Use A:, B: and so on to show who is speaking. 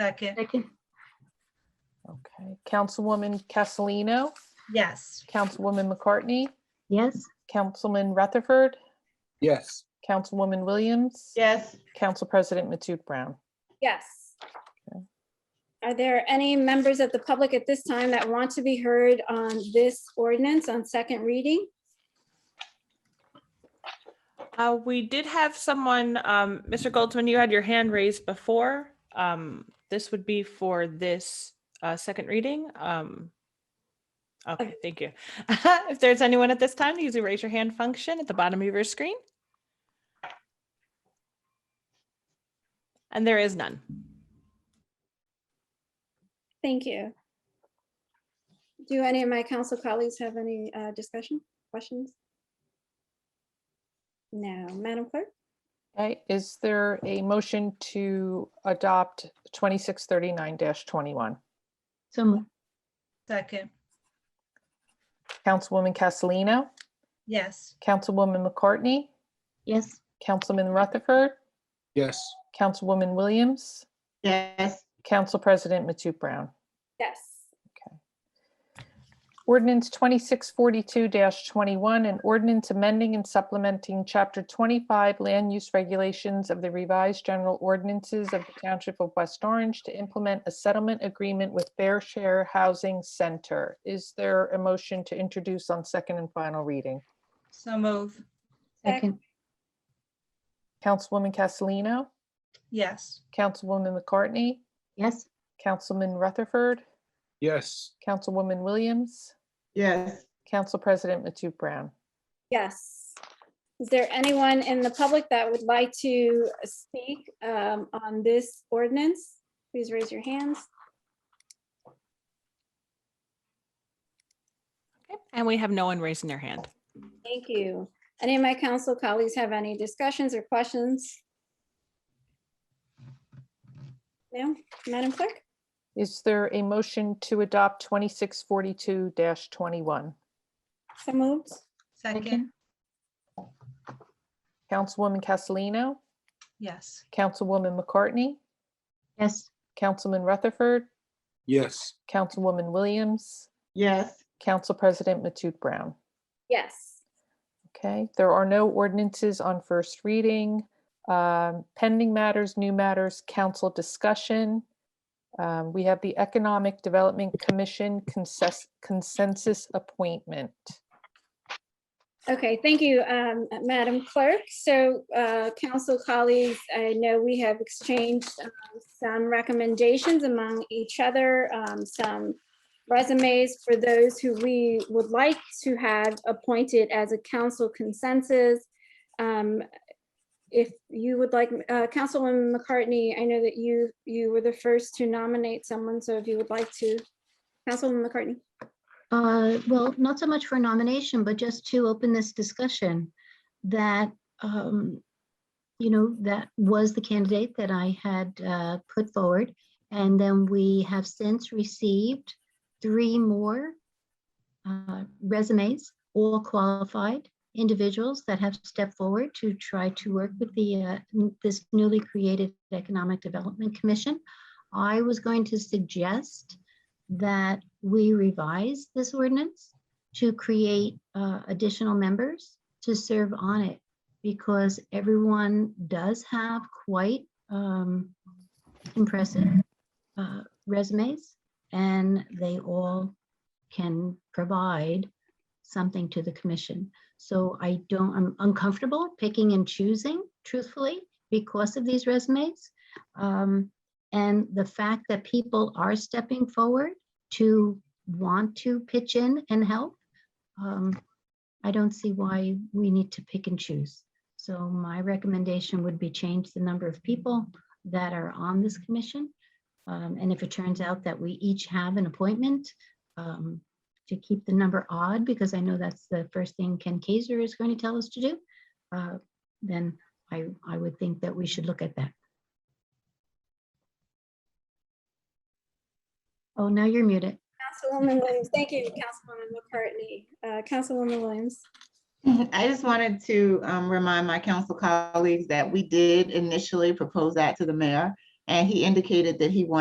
A: Second,
B: Second,
C: Okay, Councilwoman Castellino,
A: yes.
C: Councilwoman McCartney,
B: yes,
C: Councilman Rutherford,
D: yes,
C: Councilwoman Williams,
E: yes,
C: Council President Matute Brown.
F: Yes.
C: Okay.
F: Are there any members of the public at this time that want to be heard on this ordinance on second reading?
G: Uh, we did have someone, um, Mr. Goldsman, you had your hand raised before. Um, this would be for this, uh, second reading. Um. Okay, thank you. If there's anyone at this time, use the raise your hand function at the bottom of your screen. And there is none.
F: Thank you. Do any of my council colleagues have any uh, discussion, questions? No, Madam Clerk?
C: Okay, is there a motion to adopt 2639-21?
B: so moved,
A: Second,
C: Councilwoman Castellino,
A: yes.
C: Councilwoman McCartney,
B: yes,
C: Councilman Rutherford,
D: yes,
C: Councilwoman Williams,
E: yes,
C: Council President Matute Brown.
F: Yes.
C: Ordinance twenty-six forty-two twenty-one, an ordinance amending and supplementing chapter twenty-five land use regulations of the revised general ordinances of the Township of West Orange to implement a settlement agreement with Fair Share Housing Center. Is there a motion to introduce on second and final reading?
A: So move,
B: second,
C: Councilwoman Castellino,
A: yes.
C: Councilwoman McCartney,
B: yes,
C: Councilman Rutherford,
D: yes,
C: Councilwoman Williams,
E: yes,
C: Council President Matute Brown.
F: Yes. Is there anyone in the public that would like to speak um, on this ordinance? Please raise your hands.
G: Okay, And we have no one raising their hand.
F: Thank you. Any of my council colleagues have any discussions or questions? No, Madam Clerk?
C: Is there a motion to adopt twenty-six forty-two twenty-one?
F: So moved?
A: Second,
B: Second.
C: Councilwoman Castellino,
A: yes.
C: Councilwoman McCartney,
B: yes,
C: Councilman Rutherford,
D: yes,
C: Councilwoman Williams,
E: yes,
C: Council President Matute Brown.
F: Yes.
C: Okay, there are no ordinances on first reading. Um, Pending matters, new matters, council discussion. Um, We have the Economic Development Commission consensus consensus appointment.
F: Okay, thank you, um, Madam Clerk. So uh, council colleagues, I know we have exchanged um, some recommendations among each other, um, some resumes for those who we would like to have appointed as a council consensus. Um, If you would like, uh, Councilwoman McCartney, I know that you, you were the first to nominate someone, so if you would like to, Councilwoman McCartney?
B: uh, well, not so much for nomination, but just to open this discussion that, um, you know, that was the candidate that I had, uh, put forward. And then we have since received three more, uh, resumes, all qualified individuals that have stepped forward to try to work with the, uh, n- this newly created Economic Development Commission. I was going to suggest that we revise this ordinance to create uh, additional members to serve on it because everyone does have quite um, impressive uh, resumes and they all can provide something to the commission. So I don't, I'm uncomfortable picking and choosing truthfully because of these resumes. Um, and the fact that people are stepping forward to want to pitch in and help, um, I don't see why we need to pick and choose. So my recommendation would be change the number of people that are on this commission. Um, And if it turns out that we each have an appointment, um, to keep the number odd, because I know that's the first thing Ken Kaiser is going to tell us to do, uh, then I, I would think that we should look at that. Oh, now you're muted.
F: Councilwoman Williams, thank you, Councilwoman McCartney. Uh, Councilwoman Williams,
E: I just wanted to um, remind my council colleagues that we did initially propose that to the mayor, and he indicated that he wanted